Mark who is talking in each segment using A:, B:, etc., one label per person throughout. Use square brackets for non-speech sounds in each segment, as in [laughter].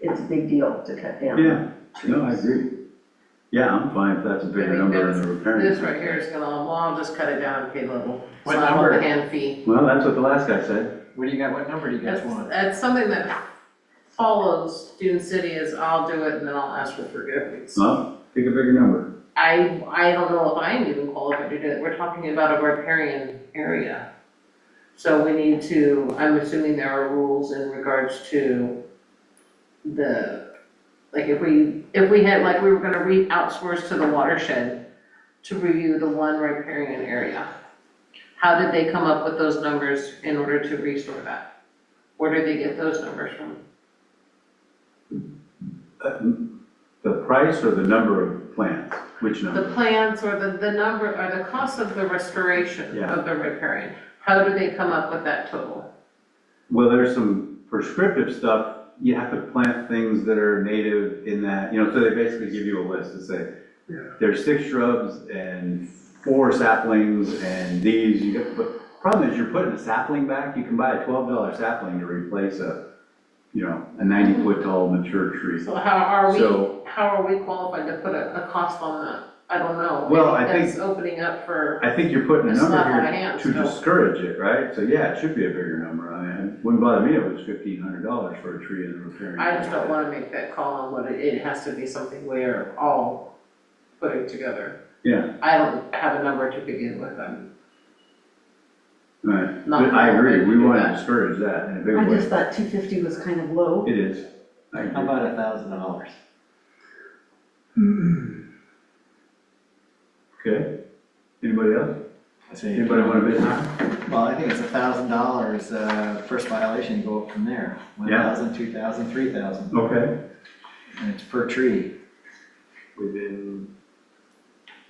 A: it's a big deal to cut down.
B: Yeah, no, I agree. Yeah, I'm fine if that's a
C: I
B: bigger
C: mean,
B: number than the repairing.
C: This right here is gonna, well, I'll just cut it down and pay little. So
D: What
C: I want
D: number?
C: the hand fee.
B: Well, that's what the last guy said.
D: What do you got, what number do you guys
C: That's,
D: want?
C: that's something that follows Dune City is I'll do it and then I'll ask for forgiveness.
B: Well, pick a bigger number.
C: I, I don't know if I'm even qualified to do it, we're talking about a riparian area. So we need to, I'm assuming there are rules in regards to the, like if we, if we had, like we were gonna re, outsource to the watershed to review the one riparian area. How did they come up with those numbers in order to restore that? Where did they get those numbers from?
B: Uh, The price or the number of plants, which
C: The
B: number?
C: plans or the, the number, or the cost of the restoration
B: Yeah.
C: of the repairing, how do they come up with that total?
B: Well, there's some prescriptive stuff. You have to plant things that are native in that, you know, so they basically give you a list and say, there's six shrubs and four saplings and these, you got, but problem is you're putting a sapling back, you can buy a twelve dollar sapling to replace a, you know, a ninety foot tall mature tree.
C: So how are
B: So-
C: we, how are we qualified to put a, a cost on that? I don't know.
B: Well, I think-
C: That's opening up for,
B: I think you're putting a
C: It's not
B: number
C: out of
B: here
C: hand,
B: to
C: no.
B: discourage it, right? So yeah, it should be a bigger number. I mean, it wouldn't bother me if it was fifteen hundred dollars for a tree and a repairing.
C: I just don't wanna make that call on what it, it has to be something we're all putting together.
B: Yeah.
C: I don't have a number to begin with, I'm
B: Right,
C: Not
B: but I agree,
C: gonna
B: we
C: do
B: want to
C: that.
B: discourage that in a
A: I
B: big
A: just
B: way.
A: thought two fifty was kind of low.
B: It is. I
D: How
B: agree.
D: about a thousand dollars?
B: Okay. Anybody else? Anybody
D: Well,
B: want to bid now?
D: I think it's a thousand dollars, uh, first violation, go up from there. One
B: Yeah.
D: thousand, two thousand, three thousand,
B: Okay.
D: and it's per tree.
B: Within.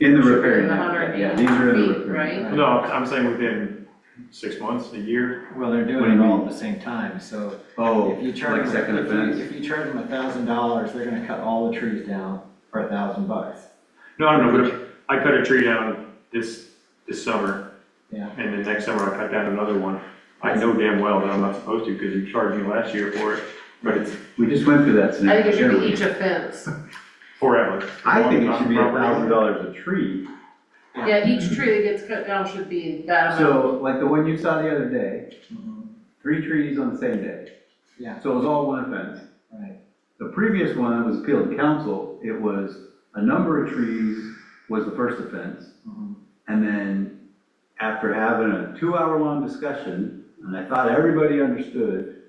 B: In the repairing.
C: In the
B: area. Yeah,
C: 180
B: these are in the
C: feet,
B: repairing.
C: right?
D: Right.
E: No, I'm saying within six months, a year.
D: Well, they're
B: What do
D: doing
B: you
D: it all
B: mean?
D: at the same time, so
B: Oh,
D: if you charge
B: like
D: them,
B: second
D: if you,
B: offense?
D: if you charge them a thousand dollars, they're gonna cut all the trees down for a thousand bucks.
E: No, I don't know, but if I cut a tree down this, this summer.
D: Yeah.
E: And then next summer I cut down another one. I know damn well that I'm not supposed to because you charged me last year for it, but it's
B: We just went through that
C: I
B: scenario.
C: think it should
B: didn't
C: be
B: we?
C: each offense.
E: forever.
B: I think it should be a
E: Property.
B: thousand dollars a tree.
C: Yeah, each tree that gets cut down should be that amount.
B: So like the one you saw the other day,
D: Mhm.
B: three trees on the same day.
D: Yeah.
B: So it was all one offense.
D: Right,
B: The previous one that was appealed to council, it was a number of trees was the first offense.
D: Mhm.
B: And then after having a two-hour-long discussion, and I thought everybody understood,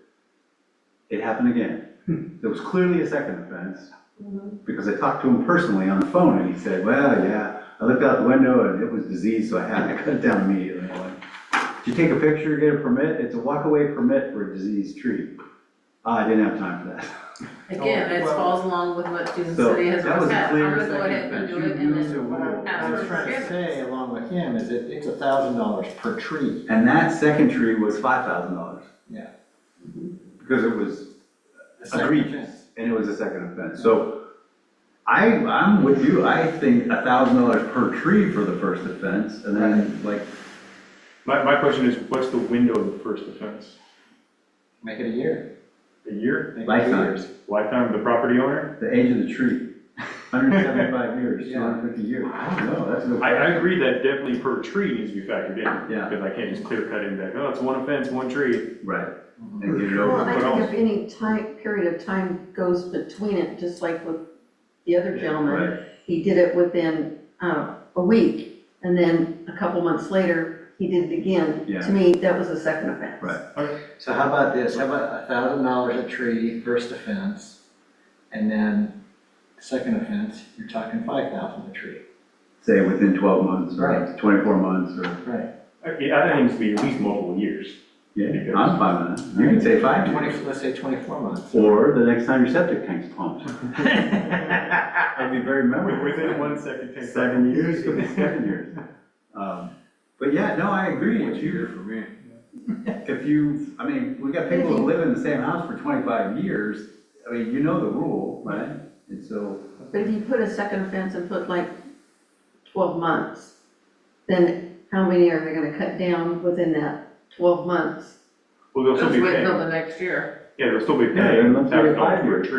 B: it happened again. There was clearly a second offense,
C: Mm-hmm.
B: because I talked to him personally on the phone, and he said, well, yeah, I looked out the window and it was diseased, so I had to [laughs] cut it down immediately. I'm like, Did you take a picture, get a permit? It's a walk-away permit for a diseased tree. Ah, I didn't have time for that. [laughs]
C: Again, it
D: Well-
C: falls along with what Dune
B: Oh, So,
C: City has
B: that was
C: always
B: a
C: had, I'm
B: clear
C: gonna go
B: second
C: ahead and
B: offense.
C: do
B: You
C: it and
B: used a
C: then.
B: word.
C: ask
D: I
C: for
D: was trying to
C: forgiveness.
D: say, along with him, is it, it's a thousand dollars per tree.
B: And that second tree was five thousand dollars.
D: Yeah.
B: Because it was,
D: The second
B: Agreed.
D: offense.
B: and it was a second offense, so I, I'm with you, I think a thousand dollars per tree for the first offense, and then like,
E: My, my question is, what's the window of the first offense?
D: Make it a year.
E: A year?
D: Make it two
B: Lifetime.
D: years.
E: Lifetime of the property owner?
B: the age of the tree, hundred and
E: [laughs]
B: seventy-five years, two hundred and fifty years, I don't know, that's a good.
E: I, I agree that definitely per tree needs to be factored in.
B: Yeah.
E: Because I can't just clear cut in back, oh, it's one offense, one tree.
B: Right,
E: Mm-hmm.
D: Mhm.
B: and get it
A: Well,
B: over,
A: I
E: But
A: think if
E: also-
A: any time, period of time goes between it, just like with the other gentleman,
B: right,
A: he did it within, uh, a week, and then a couple months later, he did it again.
B: Yeah.
A: To me, that was a second offense.
B: Right.
D: So how about this, how about a thousand dollars a tree, first offense, and then second offense, you're talking five thousand a tree.
B: say within twelve months, or
D: Right.
B: twenty-four months, or,
D: Right.
E: I, I think it needs to be at least multiple years.
B: yeah, I'm fine with that, you can say five
D: Twenty,
B: years.
D: let's say twenty-four months.
B: Or the next time your septic tank's
E: [laughs]
B: pumped. That'd be very memorable.
E: Within one second. take
B: Seven years, could [laughs] be seven years. Um, But yeah, no, I agree, if you,
E: for me.
B: [laughs] if you, I mean, we got people who live in the same house for twenty-five years, I mean, you know the rule, right? And so,
A: But if you put a second offense and put like twelve months, then how many are they gonna cut down within that twelve months?
E: Well, they'll
C: Just
E: still be
C: wait
E: paying,
C: till
E: yeah,
C: the next year.
E: they'll still be
B: Yeah,
E: paying
B: and let's say
E: tax
B: five
E: dollars for a
B: years.
E: tree.